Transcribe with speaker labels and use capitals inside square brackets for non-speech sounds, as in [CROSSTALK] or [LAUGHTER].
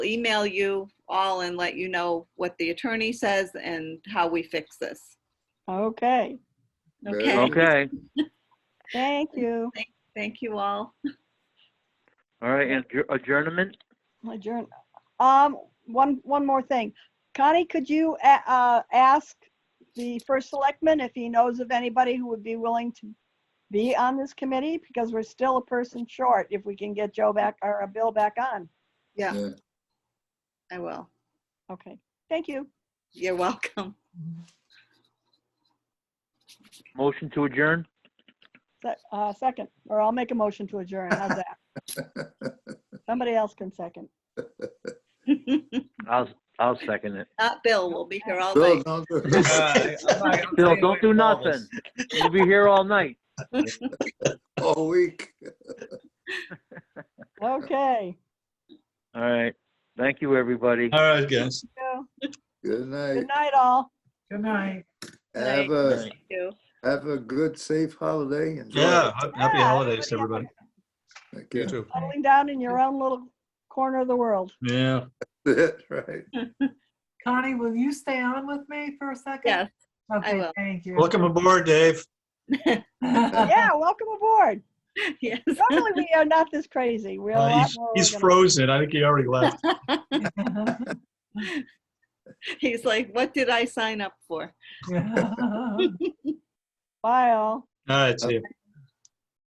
Speaker 1: email you all and let you know what the attorney says and how we fix this.
Speaker 2: Okay,
Speaker 3: Very
Speaker 1: Okay,
Speaker 3: well.
Speaker 4: Okay,
Speaker 2: thank you.
Speaker 1: thank you all.
Speaker 4: all right, and adjour- adjournment?
Speaker 2: Adjourn. Um, one, one more thing. Connie, could you, a- uh, ask the first selectman if he knows of anybody who would be willing to be on this committee? Because we're still a person short if we can get Joe back, or uh, Bill back on.
Speaker 1: Yeah,
Speaker 3: Yeah.
Speaker 1: I will.
Speaker 2: Okay, thank you.
Speaker 1: You're welcome. [LAUGHS]
Speaker 4: Motion to adjourn?
Speaker 2: Se- uh, Second, or I'll make a motion to adjourn. How's that? Somebody else can second.
Speaker 4: I'll, I'll second it.
Speaker 1: Uh, Bill will be here all
Speaker 3: Bill,
Speaker 1: night.
Speaker 3: don't [LAUGHS]
Speaker 5: Uh, I'm not- I'm
Speaker 4: Bill,
Speaker 5: staying away
Speaker 4: don't do
Speaker 5: from all this.
Speaker 4: nothing. You'll be here all night.
Speaker 3: all week.
Speaker 2: Okay.
Speaker 4: All right, thank you, everybody.
Speaker 5: All right, guys.
Speaker 3: Good
Speaker 2: Good
Speaker 3: night.
Speaker 2: night, all.
Speaker 5: Good night.
Speaker 3: Have a,
Speaker 1: Thank you. [LAUGHS]
Speaker 3: have a good, safe holiday. Enjoy.
Speaker 5: Yeah, ha- happy
Speaker 2: Yeah,
Speaker 5: holidays, to
Speaker 2: everybody
Speaker 5: everybody.
Speaker 3: Thank you.
Speaker 5: too.
Speaker 2: Settling down in your own little corner of the world.
Speaker 5: Yeah.
Speaker 3: That's [LAUGHS] right.
Speaker 6: Connie, will you stay on with me for a second?
Speaker 1: Yes, I
Speaker 6: Okay,
Speaker 1: will.
Speaker 6: thank you.
Speaker 5: Welcome aboard, Dave.
Speaker 2: Yeah, welcome aboard.
Speaker 1: yes.
Speaker 2: Normally, we are not this crazy. We're a
Speaker 5: Uh,
Speaker 2: lot
Speaker 5: he's-
Speaker 2: more.
Speaker 5: He's
Speaker 2: organized.
Speaker 5: frozen. I think he already left.
Speaker 6: [LAUGHS]
Speaker 1: He's like, what did I sign up for?
Speaker 6: [LAUGHS]
Speaker 1: [LAUGHS]
Speaker 2: Bye, all.
Speaker 5: All right, see you.